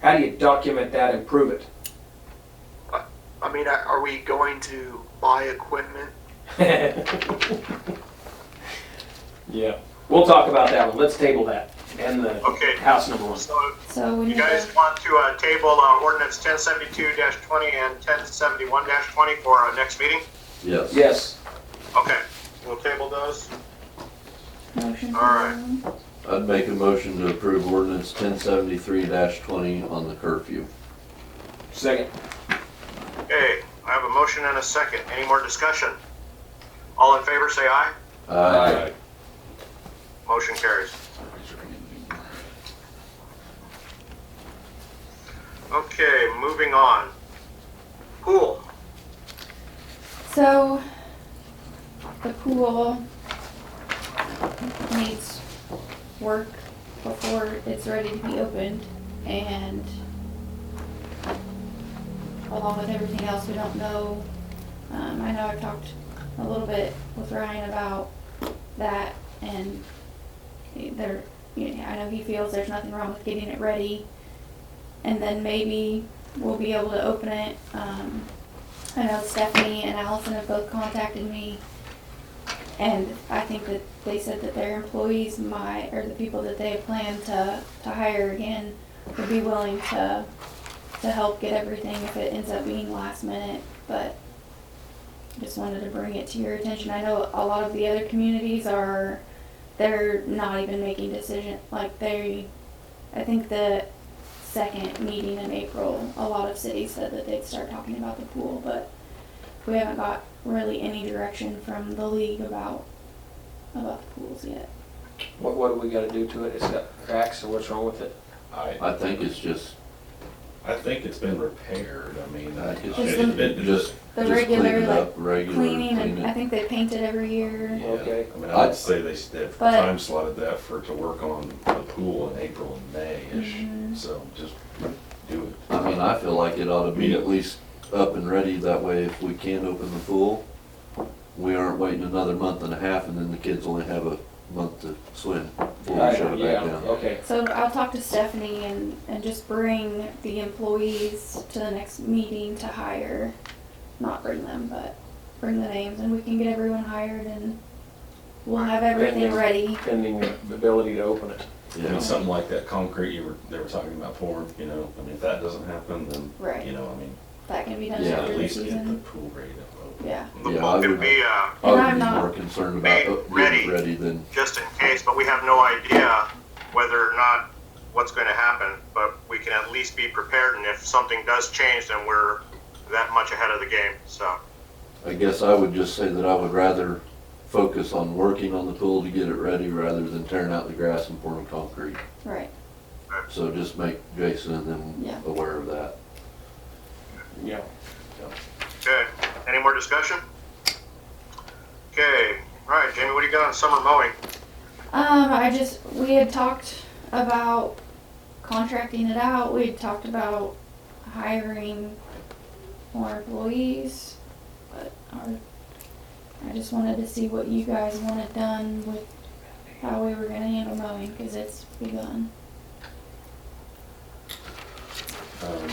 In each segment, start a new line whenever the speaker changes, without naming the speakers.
How do you document that and prove
I mean, uh, are are we going to buy equipment?
it? Yeah, we'll talk about that one. Let's table that and the
Okay,
house number one.
so
So we
you
need to,
guys want to uh, table uh, ordinance 1072-20 and 1071-20 for our next meeting?
Yes.
Yes,
Okay, we'll table those.
motion for
All right.
that
I'd make a motion to approve ordinance ten seventy-three twenty on the curfew.
second.
Okay, I have a motion and a second. Any more discussion? All in favor, say aye.
Aye.
Motion carries. Okay, moving on. Pool.
So the pool needs work before it's ready to be opened and along with everything else, we don't know. Um, I know I've talked a little bit with Ryan about that and there, you know, I know he feels there's nothing wrong with getting it ready. And then maybe we'll be able to open it, um, I know Stephanie and Allison have both contacted me, and I think that they said that their employees might, or the people that they plan to, to hire again, would be willing to, to help get everything if it ends up being last minute, but just wanted to bring it to your attention. I know a lot of the other communities are, they're not even making decision, like they, I think the second meeting in April, a lot of cities said that they'd start talking about the pool, but we haven't got really any direction from the league about about the pools yet.
What, what do we gotta do to it? It's got cracks or what's wrong with it?
I,
I think it's just,
I think it's been repaired, I mean, I,
It's
it's been
just,
just,
The
just clean
regular
it
like
up, regular
cleaning, and
clean
I
it.
think they paint it every year.
yeah,
Okay.
I mean, I'd say they, s- they've
But-
time slotted that for, to work on the pool in April and
Mhm.
May-ish, so just do it.
I mean, I feel like it ought to be at least up and ready, that way if we can't open the pool, we aren't waiting another month and a half and then the kids only have a month to swim before we shut it
Yeah,
back down.
okay.
So I'll talk to Stephanie and, and just bring the employees to the next meeting to hire. Not bring them, but bring the names and we can get everyone hired and we'll have everything
Everything.
ready.
Pending the ability to open it.
I mean,
Yeah,
something like that concrete you were, they were talking about pouring, you know, I mean, if that doesn't happen, then,
Right.
you know, I mean,
That can be done
Yeah,
after
at
the
least get the
season.
pool ready to open.
Yeah.
The
Yeah,
pool
I
could
would-
be uh,
I
And
would
I'm
be
not-
more concerned about
Made
uh,
ready.
getting ready than,
just in case, but we have no idea whether or not what's going to happen. But we can at least be prepared, and if something does change, then we're that much ahead of the game. So,
I guess I would just say that I would rather focus on working on the pool to get it ready rather than tearing out the grass and pouring concrete.
Right.
So just make Jason and
Yeah.
them aware of that.
Yeah.
okay. Any more discussion? Okay. All right, Jamie, what do you got on summer mowing?
Um, I just, we had talked about contracting it out, we had talked about hiring more employees, but our, I just wanted to see what you guys wanted done with how we were gonna handle mowing, cause it's begun.
Um,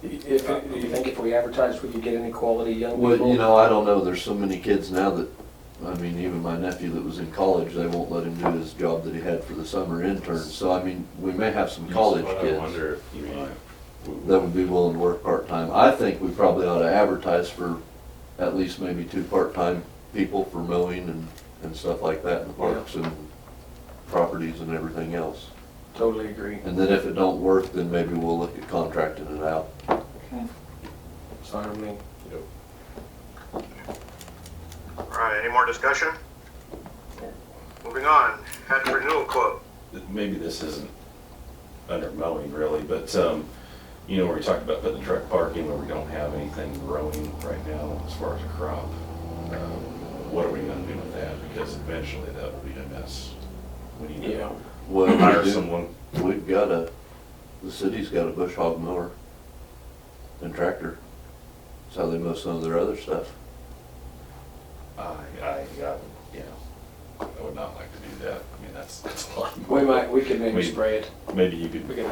If, do you think if we advertised, we could get any quality young
Well, you
people?
know, I don't know, there's so many kids now that, I mean, even my nephew that was in college, they won't let him do his job that he had for the summer intern, so I mean, we may have some college
but I
kids
wonder if you might.
that would be willing to work part-time. I think we probably ought to advertise for at least maybe two part-time people for mowing and, and stuff like that in the parks and properties and everything else.
Totally agree.
And then if it don't work, then maybe we'll look at contracting it out.
Okay.
Sorry, I mean,
All right, any more discussion? Moving on, head renewal quote.
that maybe this isn't under mowing really, but, um, you know, where we talked about putting the truck parking where we don't have anything growing right now as far as a crop. um, What are we gonna do with that? Because eventually that will be a mess. We need
yeah.
to
Well,
hire
we do-
someone.
We've got a, the city's got a bush hog mower and tractor. That's how they mow some of their other stuff.
I, I, I would, you know, I would not like to do that. I mean,
that's, that's a lot.
We might, we could maybe
We-
spray it.
Maybe you could
We could